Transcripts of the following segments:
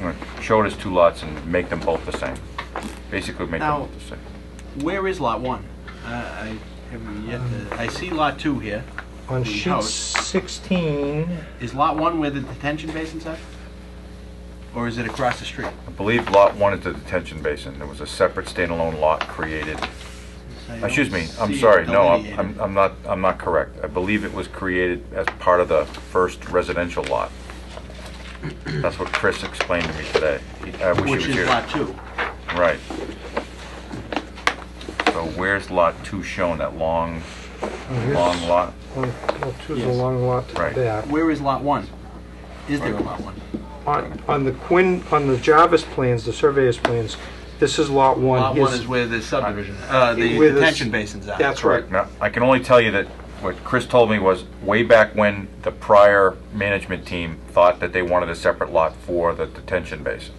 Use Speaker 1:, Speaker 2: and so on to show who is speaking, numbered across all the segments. Speaker 1: I'm gonna show it as two lots and make them both the same. Basically, make them
Speaker 2: Now-
Speaker 1: both the same.
Speaker 2: Where is lot one? Um, I Uh, I have yet to, I see lot two here.
Speaker 3: On
Speaker 2: The
Speaker 3: sheet
Speaker 2: house.
Speaker 3: 16,
Speaker 2: Is lot one where the detention basin's at? Or is it across the street?
Speaker 1: I believe Lot 1 is the detention basin. There was a separate standalone lot created.
Speaker 2: I
Speaker 1: Excuse
Speaker 2: don't
Speaker 1: me, I'm
Speaker 2: see it
Speaker 1: sorry, no, I'm-
Speaker 2: delineated.
Speaker 1: I'm I'm not, I'm not correct. I believe it was created as part of the first residential lot. That's what Chris explained to me today. He- I wish he was
Speaker 2: Which
Speaker 1: here.
Speaker 2: is lot two.
Speaker 1: Right. So where's Lot 2 shown, that long,
Speaker 3: oh,
Speaker 1: long lot?
Speaker 3: well, well, two's oh, a
Speaker 2: Yes.
Speaker 3: long lot to
Speaker 1: Right.
Speaker 3: the back.
Speaker 2: Where is lot one? Is there a lot one?
Speaker 3: On, on the Quinn, on the Jarvis plans, the surveyor's plans, this is lot one.
Speaker 2: Lot one
Speaker 3: His-
Speaker 2: is where the subdivision, uh, the
Speaker 3: Where this-
Speaker 2: detention basin's at.
Speaker 3: That's right.
Speaker 1: Now, I can only tell you that what Chris told me was way back when the prior management team thought that they wanted a separate lot for the detention basin.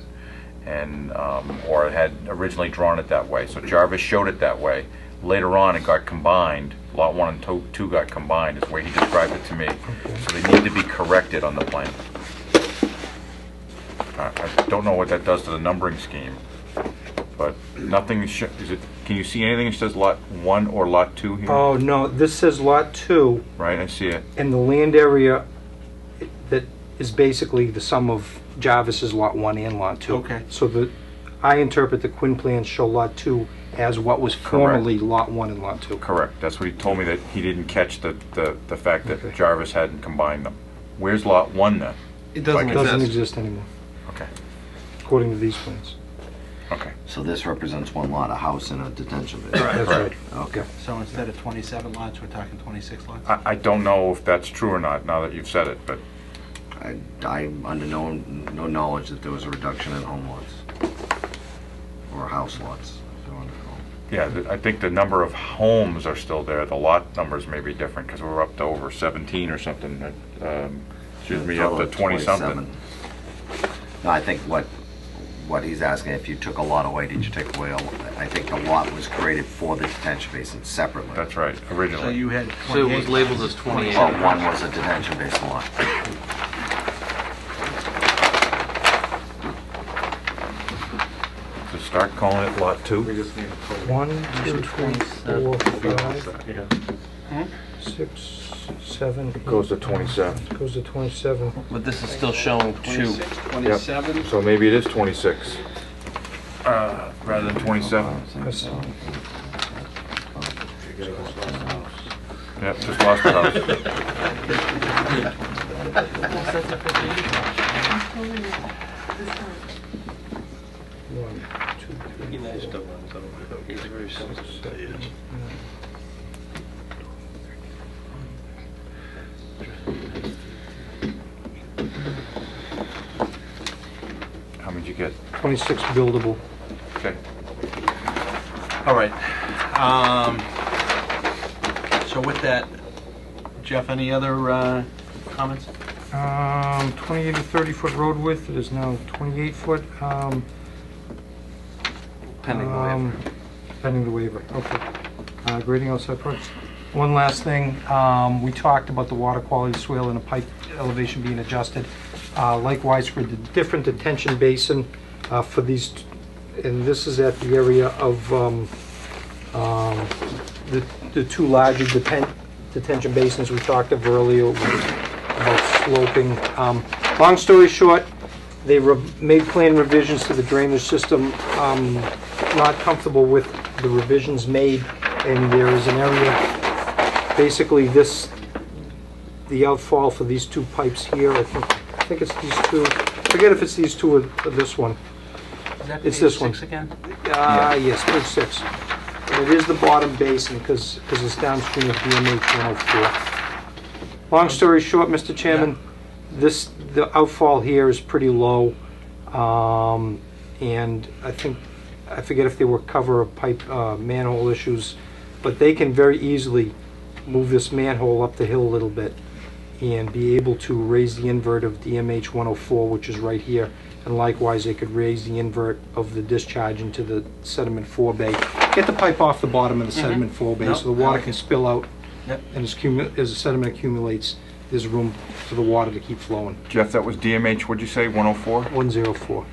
Speaker 1: And, um, or had originally drawn it that way. So Jarvis showed it that way. Later on, it got combined. Lot one and to- two got combined is the way he described it to me. So they need to be corrected on the plan. I, I don't know what that does to the numbering scheme, but nothing sho- is it, can you see anything that says lot one or lot two here?
Speaker 3: Oh, no, this says lot two,
Speaker 1: Right, I see it.
Speaker 3: and the land area that is basically the sum of Jarvis's lot one and lot two.
Speaker 2: Okay.
Speaker 3: So the, I interpret the Quinn plans show lot two as what was formerly lot one and lot two.
Speaker 1: Correct. That's what he told me, that he didn't catch the, the, the fact that
Speaker 3: Okay.
Speaker 1: Jarvis hadn't combined them. Where's lot one then?
Speaker 4: It
Speaker 1: doesn't
Speaker 4: doesn't
Speaker 3: Doesn't
Speaker 4: exist.
Speaker 3: exist anymore,
Speaker 1: Okay,
Speaker 3: according to these plans.
Speaker 1: okay.
Speaker 5: So this represents one lot, a house and a detention basin.
Speaker 3: That's
Speaker 1: Correct.
Speaker 3: right.
Speaker 5: Okay.
Speaker 2: So instead of 27 lots, we're talking 26 lots?
Speaker 1: I, I don't know if that's true or not, now that you've said it, but
Speaker 5: I, I'm under no, no knowledge that there was a reduction in home lots. Or house lots, if you want to call them.
Speaker 1: yeah, th- I think the number of homes are still there. The lot numbers may be different, because we're up to over seventeen or something, uh, um, excuse me, up
Speaker 5: Total
Speaker 1: to
Speaker 5: of
Speaker 1: twenty-something.
Speaker 5: 27. No, I think what, what he's asking, if you took a lot away, did you take away a lot? I think the lot was created for the detention basin separately.
Speaker 1: That's right,
Speaker 2: So
Speaker 1: originally.
Speaker 2: you had 28.
Speaker 4: So it was labeled as 28.
Speaker 5: Well, one was a detention basin lot.
Speaker 1: To start calling it Lot 2?
Speaker 4: just need to
Speaker 3: One, two, three, four, five, six, seven.
Speaker 6: Goes to
Speaker 3: eight,
Speaker 6: 27.
Speaker 3: Goes to 27.
Speaker 4: But this is still showing two.
Speaker 2: 26, 27?
Speaker 6: So maybe it is 26.
Speaker 1: Uh, Rather than 27?
Speaker 3: Oh.
Speaker 1: Yep, just lost the house.
Speaker 3: One, two, three, four, six, seven, eight, nine.
Speaker 1: How many did you get?
Speaker 3: 26 buildable.
Speaker 1: Okay.
Speaker 2: All right. Um, So with that, Jeff, any other uh, comments?
Speaker 3: Um, 28 to 30-foot road width, it is now 28-foot. Um,
Speaker 4: Pending the
Speaker 3: Um,
Speaker 4: waiver.
Speaker 3: Pending the waiver, okay. Uh, Grading outside permits. One last thing, um, we talked about the water quality swale and the pipe elevation being adjusted. Uh, Likewise, for the different detention basin uh, for these, t- and this is at the area of um, um, the the two larger deten- detention basins we talked of earlier about sloping. Um, Long story short, they re- made plan revisions to the drainage system. Um, not comfortable with the revisions made, and there is an area, basically this, the outfall for these two pipes here, I think, I think it's these two, forget if it's these two or or this one. It's this one.
Speaker 2: Six again?
Speaker 3: Ah, yes, page six. And it is the bottom basin, because, because it's downstream of BMH 104. Long story short, Mr. Chairman, this, the outfall here is pretty low. Um, And I think, I forget if they were cover or pipe uh, manhole issues, but they can very easily move this manhole up the hill a little bit and be able to raise the invert of DMH 104, which is right here. And likewise, they could raise the invert of the discharge into the sediment forebay. Get the pipe off the bottom of the sediment forebay so the
Speaker 2: No, I
Speaker 3: water
Speaker 2: like
Speaker 3: can spill out.
Speaker 2: Yep.
Speaker 3: And as cumu- as the sediment accumulates, there's room for the water to keep flowing.
Speaker 1: oh Jeff, that was DMH, what'd you say, 104?
Speaker 3: 104.